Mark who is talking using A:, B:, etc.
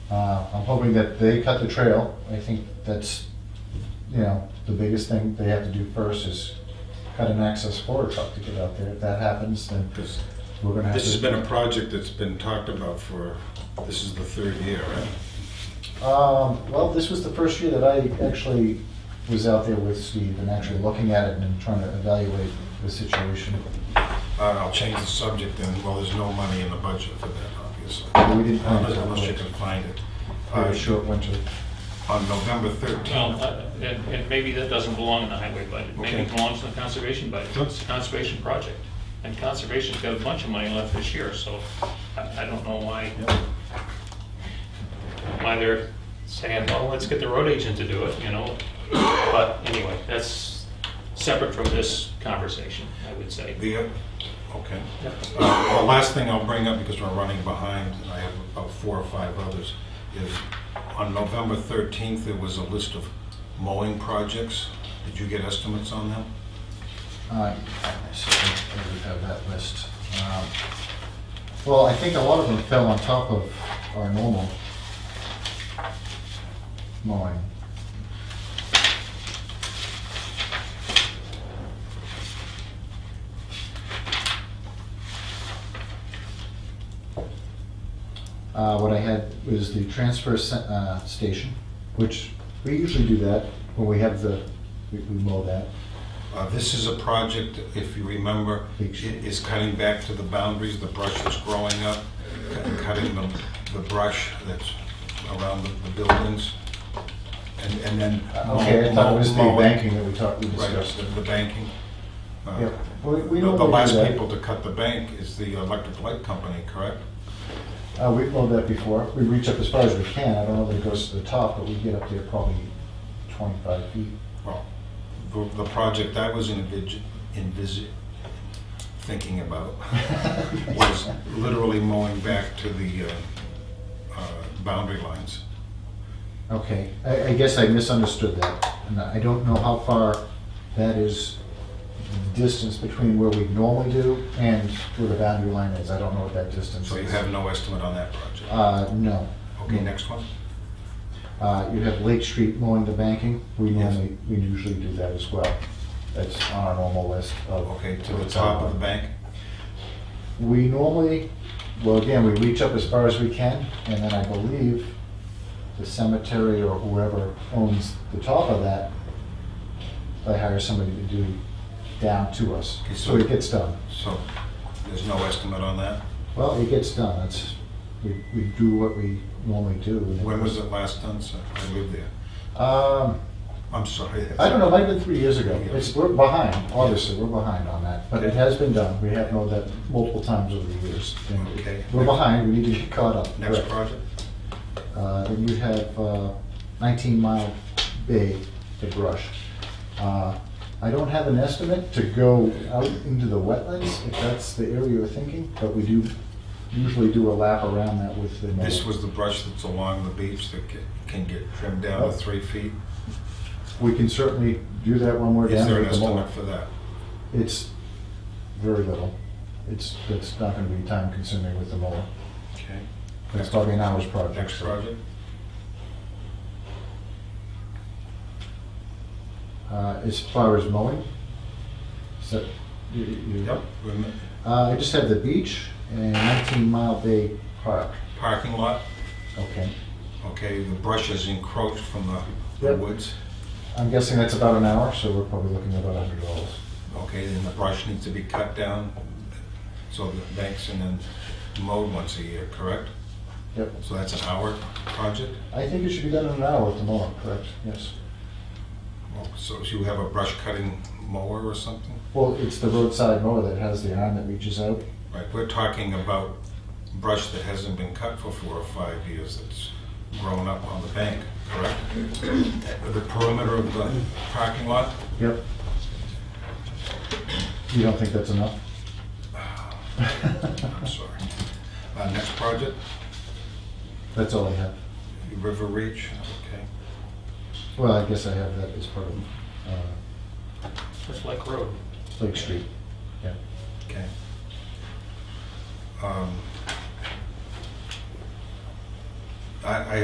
A: Uh, I'm hoping that they cut the trail. I think that's, you know, the biggest thing they have to do first is cut an access for a truck to get out there. If that happens, then
B: Because
A: we're gonna have to.
B: this has been a project that's been talked about for, this is the third year, right?
A: Um, well, this was the first year that I actually was out there with Steve and actually looking at it and trying to evaluate the situation.
B: All right, Uh, I'll change the subject then, well, there's no money in the budget for that, obviously.
A: We didn't find it.
B: Unless you can find it.
A: We
B: All
A: had a
B: right,
A: short winter.
B: On November
C: Well,
B: 13th,
C: uh, and, and maybe that doesn't belong in the highway budget, maybe it
B: Okay.
C: belongs in the conservation budget, it's a conservation project. And conservation's got a bunch of money left this year, so I, I don't know why, why they're saying, well, let's get the road agent to do it, you know? But anyway, that's separate from this conversation, I would say.
B: the, okay.
C: Yep.
B: Uh, The last thing I'll bring up, because we're running behind, and I have about four or five others, is on November 13th, there was a list of mowing projects. Did you get estimates on them?
A: I I certainly do have that list. Um, Well, I think a lot of them fell on top of our normal mowing. Uh, What I had was the transfer se- uh, station, which we usually do that when we have the, we we mow that.
B: Uh, This is a project, if you remember, i- is cutting back to the boundaries, the brush that's growing up, cu- cutting the the brush that's around the- the buildings, and and then... uh,
A: Okay, I thought it was the
B: mowing.
A: banking that we talked, we
B: Right,
A: discussed.
B: the the banking. Uh,
A: Yeah, we- we
B: the- The
A: normally
B: last
A: do that.
B: people to cut the bank is the electric light company, correct?
A: Uh, we mowed that before. We reach up as far as we can. I don't know that it goes to the top, but we get up there probably twenty-five feet.
B: Well, the the project I was envis- envis- thinking about was literally mowing back to the uh, uh, boundary lines.
A: Okay, I, I guess I misunderstood that. And I don't know how far that is, the distance between where we normally do and where the boundary line is. I don't know what that distance is.
B: So you have no estimate on that project.
A: Uh, no.
B: Okay, next one.
A: Uh, you have Lake Street mowing the banking. We
B: Yes.
A: normally, we usually do that as well. That's on our normal list of.
B: Okay, to the top of the bank.
A: We normally, well, again, we reach up as far as we can, and then I believe the cemetery or whoever owns the top of that, they hire somebody to do down to us,
B: Okay, so-
A: so it gets done.
B: So there's no estimate on that.
A: Well, it gets done, it's, we, we do what we normally do. and it-
B: When was it last done, sir? I lived there.
A: Um,
B: I'm sorry.
A: I don't know, it might have been three years ago. It's, we're behind, obviously, we're behind on that, but it has been done. We have known that multiple times over the years. and
B: Okay.
A: We're behind, we need to get caught up.
B: Next
A: Correct.
B: project?
A: Uh, Then you have uh, 19 Mile Bay to brush. Uh, I don't have an estimate to go out into the wetlands, if that's the area you're thinking, but we do usually do a lap around that with the. mower.
B: This was the brush that's along the beach that ca- can get trimmed down
A: Oh.
B: to three feet.
A: We can certainly do that when we're
B: Is
A: down
B: there
A: there
B: an
A: with the mower.
B: estimate for that?
A: It's very little. It's, it's not going to be time consuming with the mower.
B: Okay.
A: It's probably an hour's project.
B: Next project?
A: Uh, As far as mowing, so you. you-
B: Yep. Rem-
A: Uh, I just had the beach and 19 Mile Bay Park.
B: Parking lot,
A: Okay.
B: okay, the brush is encroached from the- the
A: Yep.
B: woods.
A: I'm guessing that's about an hour, so we're probably looking at about $100.
B: Okay, then the brush needs to be cut down, so the banks and then mowed once a year, correct?
A: Yep.
B: So that's an hour project?
A: I think it should be done in an hour at the moment, correct? Yes.
B: Well, Oh, So you have a brush cutting mower or something?
A: Well, it's the roadside mower that has the arm that reaches out.
B: Right, we're talking about brush that hasn't been cut for four or five years, that's grown up on the bank, correct? The perimeter of the parking lot?
A: Yep. You don't think that's enough?
B: I'm sorry. Uh, Next project,
A: That's all I have.
B: River Reach, okay.
A: Well, I guess I have that as part of uh,
C: Just like road.
A: Lake Street. Yeah.
B: Okay. Um, I, I